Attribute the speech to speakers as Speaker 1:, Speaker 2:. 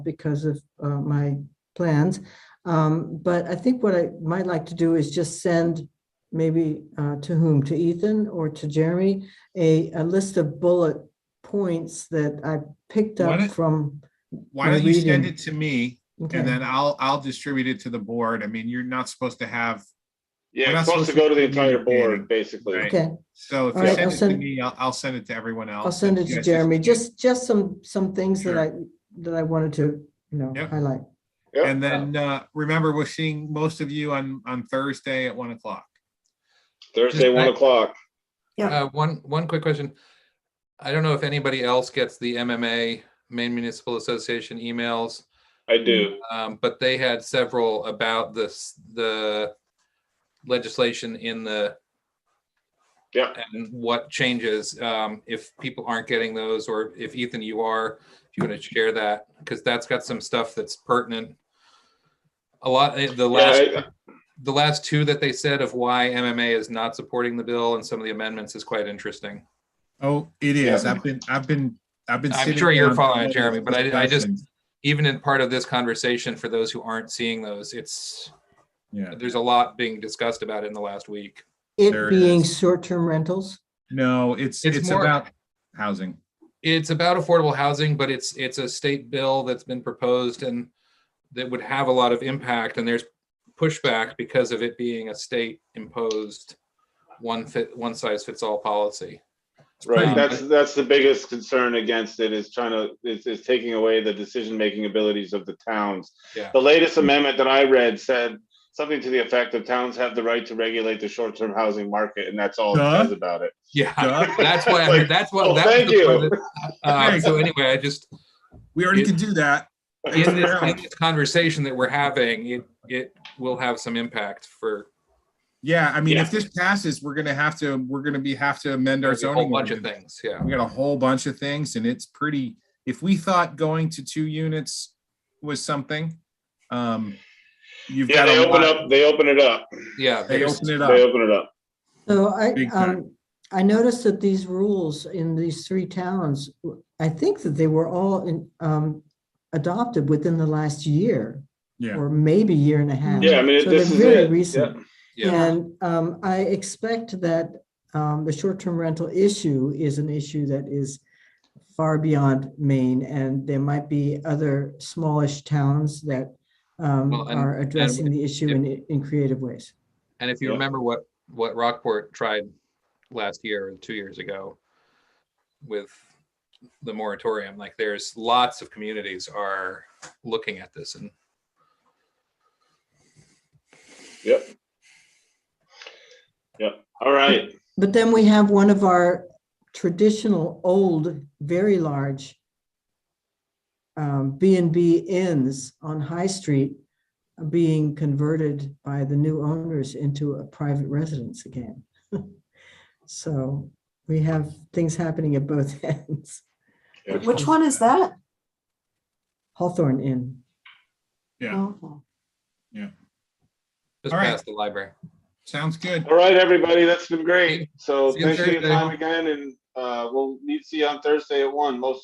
Speaker 1: because of uh, my plans. Um, But I think what I might like to do is just send maybe uh, to whom, to Ethan or to Jeremy, a, a list of bullet points that I picked
Speaker 2: Why
Speaker 1: up
Speaker 2: don't-
Speaker 1: from.
Speaker 2: Why
Speaker 1: Or
Speaker 2: don't you
Speaker 1: reading.
Speaker 2: send it to me
Speaker 1: okay.
Speaker 2: and then I'll, I'll distribute it to the board. I mean, you're not supposed to have,
Speaker 3: Yeah,
Speaker 2: We're
Speaker 3: it's
Speaker 2: not
Speaker 3: supposed to
Speaker 2: supposed to
Speaker 3: go to the
Speaker 2: be
Speaker 3: entire
Speaker 2: communicating.
Speaker 3: board, basically.
Speaker 2: Right.
Speaker 1: Okay,
Speaker 2: so if
Speaker 1: All
Speaker 2: you
Speaker 1: right, I'll
Speaker 2: send it to
Speaker 1: send-
Speaker 2: me, I'll, I'll send it to everyone else.
Speaker 1: I'll send it
Speaker 2: and you
Speaker 1: to
Speaker 2: guys just-
Speaker 1: Jeremy, just, just some, some things that
Speaker 2: Sure.
Speaker 1: I, that I wanted to, you know,
Speaker 2: Yep.
Speaker 1: highlight.
Speaker 3: Yep.
Speaker 2: And then, uh, remember, we're seeing most of you on, on Thursday at one o'clock.
Speaker 3: Thursday, one
Speaker 4: Right.
Speaker 3: o'clock.
Speaker 4: Uh, one, one quick question. I don't know if anybody else gets the MMA, Maine Municipal Association emails,
Speaker 3: I
Speaker 2: Mm,
Speaker 3: do.
Speaker 4: um, but they had several about this, the legislation in the
Speaker 3: Yeah.
Speaker 4: and what changes, um, if people aren't getting those, or if Ethan, you are, if you want to share that, because that's got some stuff that's pertinent. A lot, eh, the
Speaker 3: Yeah,
Speaker 4: last
Speaker 3: I-
Speaker 4: the last two that they said of why MMA is not supporting the bill and some of the amendments is quite interesting.
Speaker 2: Oh, it
Speaker 3: is.
Speaker 2: I've been, I've been, I've been.
Speaker 4: I'm sitting sure you're down following it, Jeremy, but I- I just- Even in part of this conversation, for those who aren't seeing those, it's,
Speaker 2: Yeah,
Speaker 4: there's a lot being discussed about it in the last week.
Speaker 1: It
Speaker 2: There it
Speaker 1: being
Speaker 2: is.
Speaker 1: short-term rentals,
Speaker 2: no, it's,
Speaker 4: It's it's more- about
Speaker 2: housing.
Speaker 4: It's about affordable housing, but it's, it's a state bill that's been proposed and that would have a lot of impact and there's pushback because of it being a state imposed one fit, one size fits all policy.
Speaker 3: Right,
Speaker 4: Um,
Speaker 3: that's, that's the biggest concern against it is trying to, is, is taking away the decision-making abilities of the towns.
Speaker 4: Yeah.
Speaker 3: The latest amendment that I read said something to the effect of towns have the right to regulate the short-term housing market, and that's all it
Speaker 2: Duh.
Speaker 3: says about it.
Speaker 4: Yeah,
Speaker 2: Duh.
Speaker 4: that's what, I heard. that's
Speaker 3: Oh,
Speaker 4: what. that was
Speaker 3: thank
Speaker 4: the part
Speaker 3: you.
Speaker 4: that- uh, So anyway, I just,
Speaker 2: We
Speaker 4: It-
Speaker 2: could do that.
Speaker 4: in this, in this conversation that we're having, it, it will have some impact for
Speaker 2: Yeah, I mean,
Speaker 3: Yeah.
Speaker 2: if this passes, we're gonna have to, we're gonna be, have to amend our
Speaker 4: a
Speaker 2: zoning.
Speaker 4: whole bunch of
Speaker 2: ordinance.
Speaker 4: things, yeah.
Speaker 2: We got a whole bunch of things and it's pretty, if we thought going to two units was something, um, you've got
Speaker 3: Yeah, they
Speaker 2: a
Speaker 3: open
Speaker 2: lot.
Speaker 3: up, they open it up,
Speaker 4: Yeah,
Speaker 2: They
Speaker 4: there's,
Speaker 2: open it
Speaker 3: they
Speaker 2: up.
Speaker 3: open it up.
Speaker 1: So I,
Speaker 2: Big time.
Speaker 1: um, I noticed that these rules in these three towns, I think that they were all in, um, adopted within the last year.
Speaker 2: Yeah.
Speaker 1: Or maybe year and a half.
Speaker 3: Yeah, I mean,
Speaker 1: So
Speaker 3: this
Speaker 1: they're
Speaker 3: is
Speaker 1: very
Speaker 3: it.
Speaker 1: recent.
Speaker 4: yeah,
Speaker 1: And, um, I expect that, um, the short-term rental issue is an issue that is far beyond Maine, and there might be other smallish towns that, um,
Speaker 4: Well, and-
Speaker 1: are addressing the issue in, in creative ways.
Speaker 4: and if you
Speaker 3: Yeah.
Speaker 4: remember what, what Rockport tried last year or two years ago with the moratorium, like there's lots of communities are looking at this and
Speaker 3: Yep. Yep, all right.
Speaker 1: But then we have one of our traditional, old, very large um, B and B inns on High Street being converted by the new owners into a private residence again. So we have things happening at both ends.
Speaker 3: Yeah.
Speaker 5: Which one is that?
Speaker 1: Hawthorne Inn.
Speaker 2: Yeah,
Speaker 5: Oh,
Speaker 4: just
Speaker 2: All right.
Speaker 4: past the library.
Speaker 2: sounds good.
Speaker 3: All right, everybody, that's been great. So
Speaker 4: See you
Speaker 3: thanks for your
Speaker 4: Thursday.
Speaker 3: time again, and uh, we'll meet, see you on Thursday at one, most